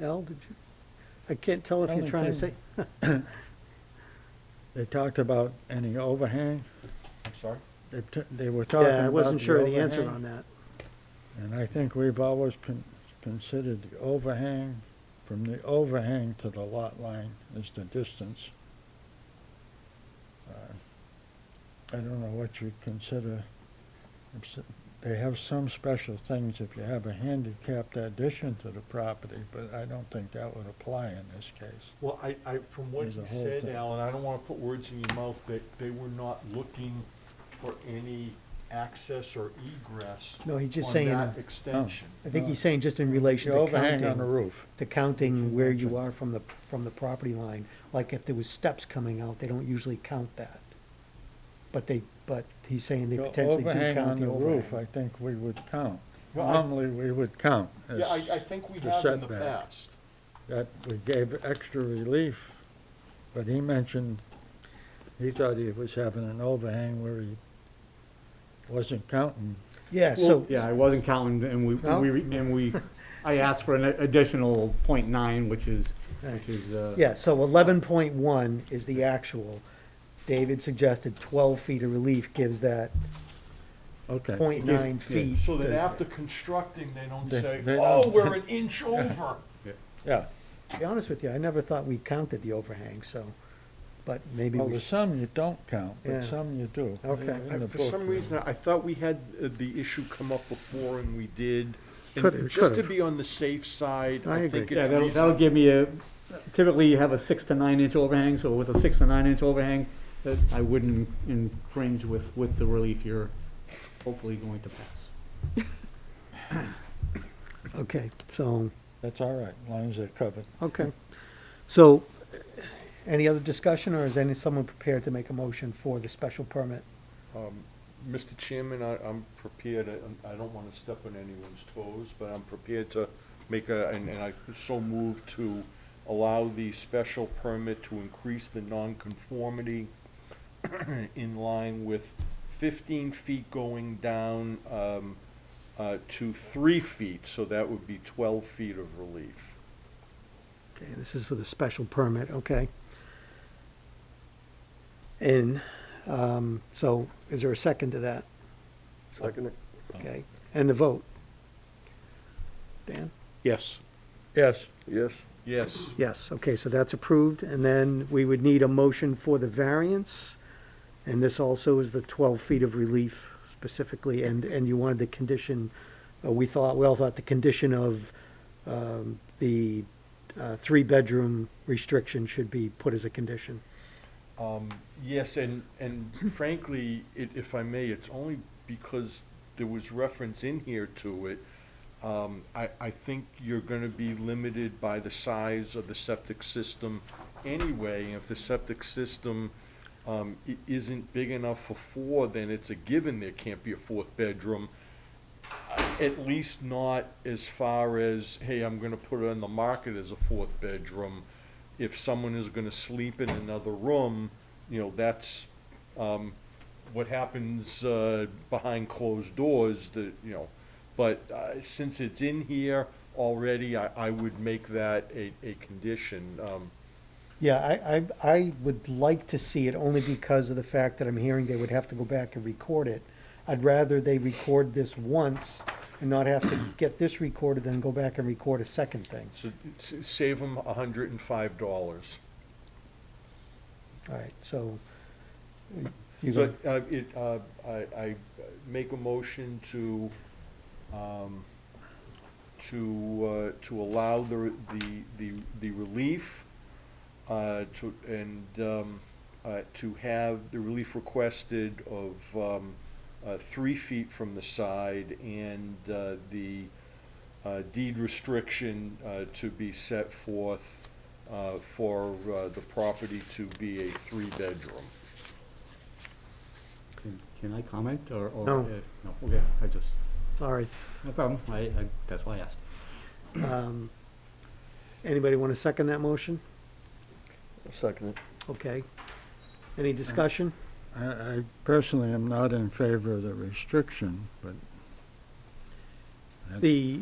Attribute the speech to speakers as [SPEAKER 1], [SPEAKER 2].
[SPEAKER 1] Al, did you, I can't tell if
[SPEAKER 2] I
[SPEAKER 1] you're
[SPEAKER 2] don't
[SPEAKER 1] trying to say,
[SPEAKER 2] think- They talked about any overhang.
[SPEAKER 3] I'm sorry?
[SPEAKER 2] They t- They were talking about
[SPEAKER 1] yeah, I wasn't sure of the answer
[SPEAKER 2] overhang,
[SPEAKER 1] on that.
[SPEAKER 2] And I think we've always con- considered the overhang, from the overhang to the lot line is the distance. Uh, I don't know what you consider, it's- they have some special things if you have a handicapped addition to the property, but I don't think that would apply in this case.
[SPEAKER 3] Well, I, I, from what
[SPEAKER 2] There's
[SPEAKER 3] you
[SPEAKER 2] a whole
[SPEAKER 3] said,
[SPEAKER 2] thing.
[SPEAKER 3] Alan, I don't wanna put words in your mouth, that they were not looking for any access or egress
[SPEAKER 1] No, he's just
[SPEAKER 3] on
[SPEAKER 1] saying,
[SPEAKER 3] that
[SPEAKER 1] I
[SPEAKER 3] extension.
[SPEAKER 2] Oh,
[SPEAKER 1] think he's saying just in relation
[SPEAKER 2] The
[SPEAKER 1] to
[SPEAKER 2] overhang on the
[SPEAKER 1] counting,
[SPEAKER 2] roof.
[SPEAKER 1] to counting where you are from the, from the property line. Like if there was steps coming out, they don't usually count that. But they, but he's saying they
[SPEAKER 2] The
[SPEAKER 1] potentially do
[SPEAKER 2] overhang
[SPEAKER 1] count
[SPEAKER 2] on
[SPEAKER 1] the
[SPEAKER 2] the roof, I
[SPEAKER 1] overhang.
[SPEAKER 2] think we would count.
[SPEAKER 3] Well, I-
[SPEAKER 2] Normally, we would count.
[SPEAKER 3] Yeah, I,
[SPEAKER 2] as-
[SPEAKER 3] I think we
[SPEAKER 2] the
[SPEAKER 3] have in the
[SPEAKER 2] setback.
[SPEAKER 3] past.
[SPEAKER 2] that we gave extra relief, but he mentioned, he thought he was having an overhang where he wasn't counting.
[SPEAKER 1] Yeah, so,
[SPEAKER 4] Yeah, I wasn't counting, and we,
[SPEAKER 1] No?
[SPEAKER 4] we, and we, I asked for an additional point nine, which is,
[SPEAKER 1] Right.
[SPEAKER 4] which is, uh,
[SPEAKER 1] yeah, so eleven point one is the actual. David suggested twelve feet of relief gives that
[SPEAKER 2] Okay.
[SPEAKER 1] point
[SPEAKER 4] It gives-
[SPEAKER 1] nine
[SPEAKER 4] yeah,
[SPEAKER 1] feet.
[SPEAKER 3] So that
[SPEAKER 1] to-
[SPEAKER 3] after constructing, they don't
[SPEAKER 2] They-
[SPEAKER 3] say,
[SPEAKER 2] they
[SPEAKER 3] oh,
[SPEAKER 2] don't."
[SPEAKER 3] we're an inch over.
[SPEAKER 2] Yeah.
[SPEAKER 1] To be honest with you, I never thought we counted the overhang, so, but maybe
[SPEAKER 2] Well,
[SPEAKER 1] we
[SPEAKER 2] there's some you don't count,
[SPEAKER 1] Yeah.
[SPEAKER 2] but some you do.
[SPEAKER 1] Okay.
[SPEAKER 2] In
[SPEAKER 3] I-
[SPEAKER 2] the
[SPEAKER 3] For
[SPEAKER 2] book.
[SPEAKER 3] some reason, I thought we had uh, the issue come up before and we did. And
[SPEAKER 1] Could've-
[SPEAKER 3] Just to
[SPEAKER 1] could've.
[SPEAKER 3] be on the safe side,
[SPEAKER 1] I
[SPEAKER 3] I think
[SPEAKER 1] agree.
[SPEAKER 4] yeah,
[SPEAKER 3] it's
[SPEAKER 4] that'll, that'll
[SPEAKER 3] reasonable.
[SPEAKER 4] give me a, typically you have a six to nine inch overhang, so with a six to nine inch overhang, that I wouldn't infringe with, with the relief you're hopefully going to pass.
[SPEAKER 1] Okay, so,
[SPEAKER 2] That's all right, as long as they're covered.
[SPEAKER 1] okay. So, any other discussion, or is any, someone prepared to make a motion for the special permit?
[SPEAKER 3] Mr. Um, Chairman, I, I'm prepared, I- I don't wanna step on anyone's toes, but I'm prepared to make a, and, and I so move to allow the special permit to increase the nonconformity in line with fifteen feet going down, um, uh, to three feet, so that would be twelve feet of relief.
[SPEAKER 1] Okay, this is for the special permit, okay? And, um, so, is there a second to that?
[SPEAKER 5] Second,
[SPEAKER 1] Okay, and the vote? Dan?
[SPEAKER 3] Yes.
[SPEAKER 2] Yes.
[SPEAKER 5] yes,
[SPEAKER 3] Yes.
[SPEAKER 1] Yes, okay, so that's approved, and then we would need a motion for the variance, and this also is the twelve feet of relief specifically, and, and you wanted the condition, uh, we thought, we all thought the condition of, um, the, uh, three-bedroom restriction should be put as a condition.
[SPEAKER 3] Um, yes, and, and frankly, it, if I may, it's only because there was reference in here to it. Um, I, I think you're gonna be limited by the size of the septic system anyway. And if the septic system, um, i- isn't big enough for four, then it's a given there can't be a fourth bedroom. Uh, At least not as far as, hey, I'm gonna put it on the market as a fourth bedroom. If someone is gonna sleep in another room, you know, that's, um, what happens, uh, behind closed doors, that, you know. But, uh, since it's in here already, I, I would make that a, a condition, um,
[SPEAKER 1] Yeah, I, I, I would like to see it only because of the fact that I'm hearing they would have to go back and record it. I'd rather they record this once and not have to get this recorded than go back and record a second thing.
[SPEAKER 3] so s- save them a hundred and five dollars.
[SPEAKER 1] All right, so. you
[SPEAKER 3] So,
[SPEAKER 1] go-
[SPEAKER 3] uh, it, uh, I, I make a motion to, um, to, uh, to allow the, the, the, the relief, uh, to, and, um, uh, to have the relief requested of, um, uh, three feet from the side and, uh, the, uh, deed restriction, uh, to be set forth, uh, for, uh, the property to be a three-bedroom.
[SPEAKER 4] Can- Can I comment, or, or?
[SPEAKER 1] No.
[SPEAKER 4] uh, No, okay, I just,
[SPEAKER 1] Sorry.
[SPEAKER 4] no problem, I, I, that's why I asked.
[SPEAKER 1] Um, Anybody want to second that motion?
[SPEAKER 5] second,
[SPEAKER 1] Okay. Any discussion?
[SPEAKER 2] I, I personally am not in favor of the restriction, but. I-
[SPEAKER 1] The,